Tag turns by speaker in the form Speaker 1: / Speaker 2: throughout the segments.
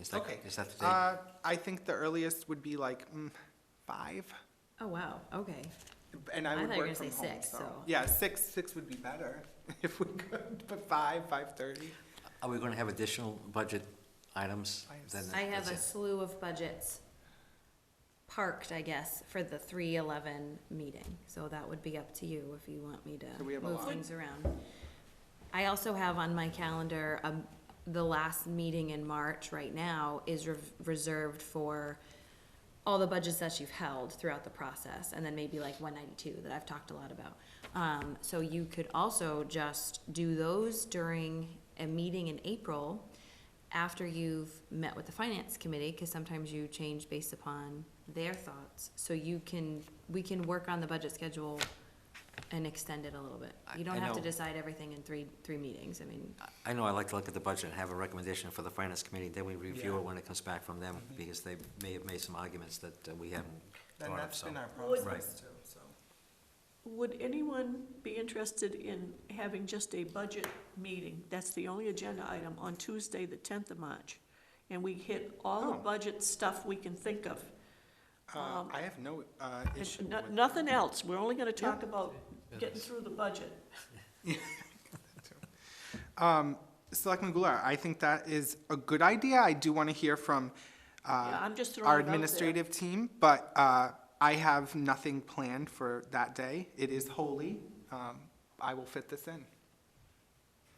Speaker 1: Is that,
Speaker 2: Okay.
Speaker 1: is that the date?
Speaker 2: Uh, I think the earliest would be like mm, five,
Speaker 3: Oh, wow, okay.
Speaker 2: and I
Speaker 3: I
Speaker 2: would
Speaker 3: thought you were
Speaker 2: work from
Speaker 3: gonna say
Speaker 2: home,
Speaker 3: six,
Speaker 2: so.
Speaker 3: so-
Speaker 2: Yeah, six, six would be better if we could, but five, five-thirty.
Speaker 1: Are we going to have additional budget items?
Speaker 2: I have
Speaker 1: Then
Speaker 3: I have
Speaker 1: that's
Speaker 3: a
Speaker 1: it.
Speaker 3: slew of budgets parked, I guess, for the three eleven meeting, so that would be up to you if you want me
Speaker 2: So we
Speaker 3: to
Speaker 2: have a
Speaker 3: move
Speaker 2: lot.
Speaker 3: things around. I also have on my calendar, um, the last meeting in March right now is rev- reserved for all the budgets that you've held throughout the process, and then maybe like one ninety-two that I've talked a lot about. Um, so you could also just do those during a meeting in April after you've met with the finance committee, cause sometimes you change based upon their thoughts. So you can, we can work on the budget schedule and extend it a little bit.
Speaker 1: I-
Speaker 3: You don't
Speaker 1: I
Speaker 3: have to
Speaker 1: know.
Speaker 3: decide everything in three, three meetings, I mean.
Speaker 1: I know I like to look at the budget and have a recommendation for the finance committee, then we review
Speaker 2: Yeah.
Speaker 1: it when it comes back from them, because they may have made some arguments that uh, we haven't
Speaker 2: And
Speaker 1: thought of,
Speaker 2: that's
Speaker 1: so.
Speaker 2: been our
Speaker 4: Would-
Speaker 2: process too, so.
Speaker 4: Would anyone be interested in having just a budget meeting? That's the only agenda item on Tuesday, the tenth of March. And we hit all the
Speaker 2: Oh.
Speaker 4: budget stuff we can think of.
Speaker 2: Uh, I have no, uh, issue
Speaker 4: And no-
Speaker 2: with.
Speaker 4: Nothing else. We're only gonna talk about getting through the budget.
Speaker 2: Um, Selectman Goulart, I think that is a good idea. I do want to hear from
Speaker 4: Yeah,
Speaker 2: uh,
Speaker 4: I'm just throwing it
Speaker 2: our
Speaker 4: out there.
Speaker 2: administrative team, but uh, I have nothing planned for that day. It is holy. Um, I will fit this in.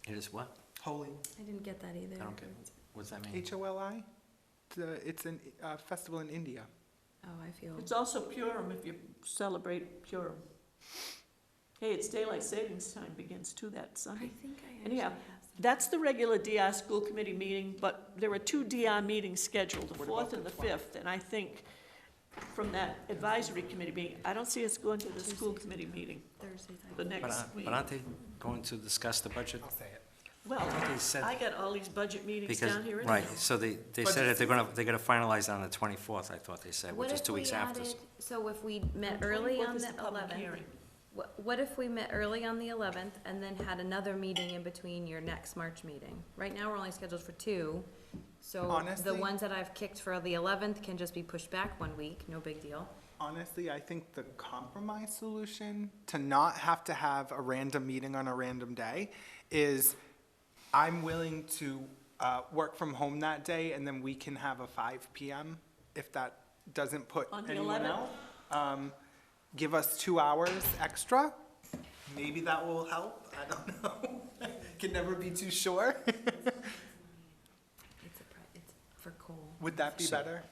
Speaker 1: It is what?
Speaker 2: Holy.
Speaker 3: I didn't get that either.
Speaker 1: I don't get, what's that mean?
Speaker 2: H O L I? It's a festival in India.
Speaker 3: Oh, I feel,
Speaker 4: It's also Purim if you celebrate Purim. Hey, it's daylight savings time begins too that
Speaker 3: I
Speaker 4: Sunday.
Speaker 3: think I actually
Speaker 4: Anyhow,
Speaker 3: have some.
Speaker 4: That's the regular DR school committee meeting, but there are two DR meetings scheduled, the
Speaker 2: What about
Speaker 4: fourth and
Speaker 2: the
Speaker 4: the fifth. And I think from that advisory committee meeting, I don't see us going to the school committee meeting
Speaker 3: Thursdays. I think.
Speaker 4: the
Speaker 1: But
Speaker 4: next
Speaker 1: aren't-
Speaker 4: week.
Speaker 1: But aren't they going to discuss the budget?
Speaker 2: I'll say it.
Speaker 4: Well,
Speaker 1: They said-
Speaker 4: I got all these budget meetings
Speaker 1: Because,
Speaker 4: down here anyhow.
Speaker 1: right, so they, they said that they're gonna, they're gonna finalize on the twenty-fourth, I thought they said, which
Speaker 3: What
Speaker 1: is
Speaker 3: if
Speaker 1: two
Speaker 3: we
Speaker 1: weeks after.
Speaker 3: added- So if we met early
Speaker 4: 24th
Speaker 3: on
Speaker 4: is
Speaker 3: the
Speaker 4: public
Speaker 3: eleventh,
Speaker 4: hearing.
Speaker 3: what, what if we met early on the eleventh and then had another meeting in between your next March meeting? Right now, we're only scheduled for two, so the
Speaker 2: Honestly-
Speaker 3: ones that I've kicked for the eleventh can just be pushed back one week, no big deal.
Speaker 2: Honestly, I think the compromise solution to not have to have a random meeting on a random day is I'm willing to uh, work from home that day and then we can have a 5 PM if that doesn't put
Speaker 4: On the
Speaker 2: anyone
Speaker 4: 11th?
Speaker 2: out. Um, Give us two hours extra. Maybe that will help. I don't know. Can never be too sure.
Speaker 3: It's a, pri- it's for Cole.
Speaker 2: Would that be better?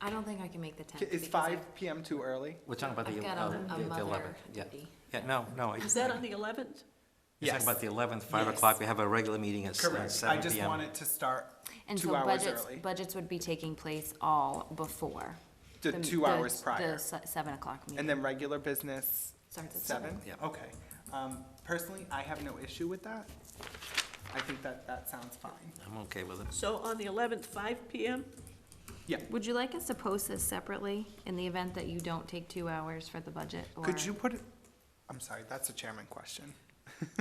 Speaker 3: I don't think I can make the tenth.
Speaker 2: Is 5 PM too early?
Speaker 1: We're talking about
Speaker 3: I've
Speaker 1: the,
Speaker 3: got
Speaker 1: uh,
Speaker 3: a- a
Speaker 1: the- the
Speaker 3: mother
Speaker 1: eleventh, yeah.
Speaker 3: duty.
Speaker 1: Yeah, no, no. I-
Speaker 4: Is that on the eleventh?
Speaker 1: You're talking about the eleventh, five
Speaker 2: Yes.
Speaker 1: o'clock, we have a regular meeting at s- uh,
Speaker 2: Correct. I
Speaker 1: seven
Speaker 2: just
Speaker 1: PM.
Speaker 2: want it to start
Speaker 3: And so
Speaker 2: two hours
Speaker 3: budgets,
Speaker 2: early.
Speaker 3: budgets would be taking place all before.
Speaker 2: The two hours prior.
Speaker 3: The se- seven o'clock meeting.
Speaker 2: And then regular business,
Speaker 3: Starts at
Speaker 2: seven?
Speaker 3: seven.
Speaker 1: Yeah.
Speaker 2: Okay. Um, personally, I have no issue with that. I think that, that sounds fine.
Speaker 1: I'm okay with it.
Speaker 4: So on the eleventh, five PM?
Speaker 2: Yeah.
Speaker 3: Would you like us to post this separately in the event that you don't take two hours for the budget? or-
Speaker 2: Could you put, it- I'm sorry, that's a chairman question.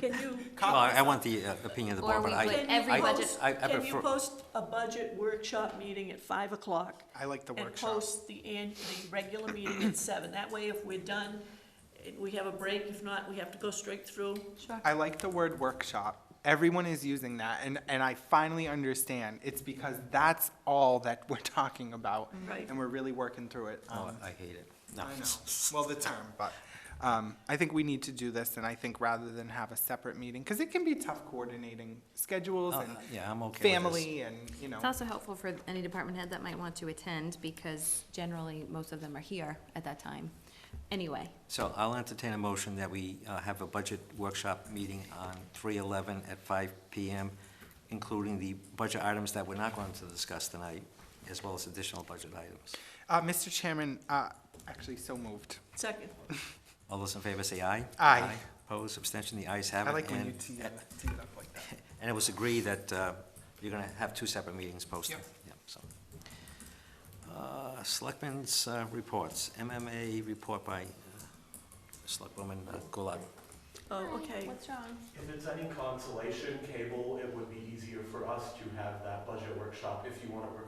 Speaker 4: Can you,
Speaker 1: Well, I I want the uh, opinion of the
Speaker 3: Or
Speaker 1: board, but
Speaker 3: we
Speaker 1: I,
Speaker 3: would-
Speaker 4: can
Speaker 3: every
Speaker 4: you
Speaker 3: budget-
Speaker 4: post,
Speaker 1: I- I
Speaker 4: can you
Speaker 1: prefer-
Speaker 4: post a budget workshop meeting at five o'clock?
Speaker 2: I like the
Speaker 4: and
Speaker 2: workshop.
Speaker 4: post the, an- the regular meeting at seven. That way, if we're done, eh, we have a break. If not, we have to go straight through.
Speaker 2: I like the word workshop. Everyone is using that and, and I finally understand. It's because that's all that we're talking about.
Speaker 4: Right.
Speaker 2: And we're really working through it.
Speaker 1: oh,
Speaker 2: Um,
Speaker 1: I hate it. No.
Speaker 2: I know, well, the term, but, um, I think we need to do this, and I think rather than have a separate meeting, because it can be tough coordinating schedules
Speaker 1: Oh,
Speaker 2: and
Speaker 1: Yeah, I'm okay with this.
Speaker 2: family and, you know.
Speaker 3: It's also helpful for any department head that might want to attend because generally, most of them are here at that time. Anyway,
Speaker 1: So I'll entertain a motion that we uh, have a budget workshop meeting on three eleven at five PM, including the budget items that we're not going to discuss tonight, as well as additional budget items.
Speaker 2: Uh, Mr. Chairman, uh, actually, so moved.
Speaker 4: Second,
Speaker 1: All those in favor say aye.
Speaker 2: Aye.
Speaker 1: Opposed, abstention, the ayes have it.
Speaker 2: I like when
Speaker 1: and-
Speaker 2: you tee it tee it up like that.
Speaker 1: And it was agreed that uh, you're going to have two separate meetings posted.
Speaker 2: Yep.
Speaker 1: Yep, so. Uh, Selectmen's uh, reports, MMA report by uh, Selectwoman uh, Goulart.
Speaker 4: oh, okay.
Speaker 3: wrong?
Speaker 5: If it's any consolation, cable, it would be easier for us to have that budget workshop if you want to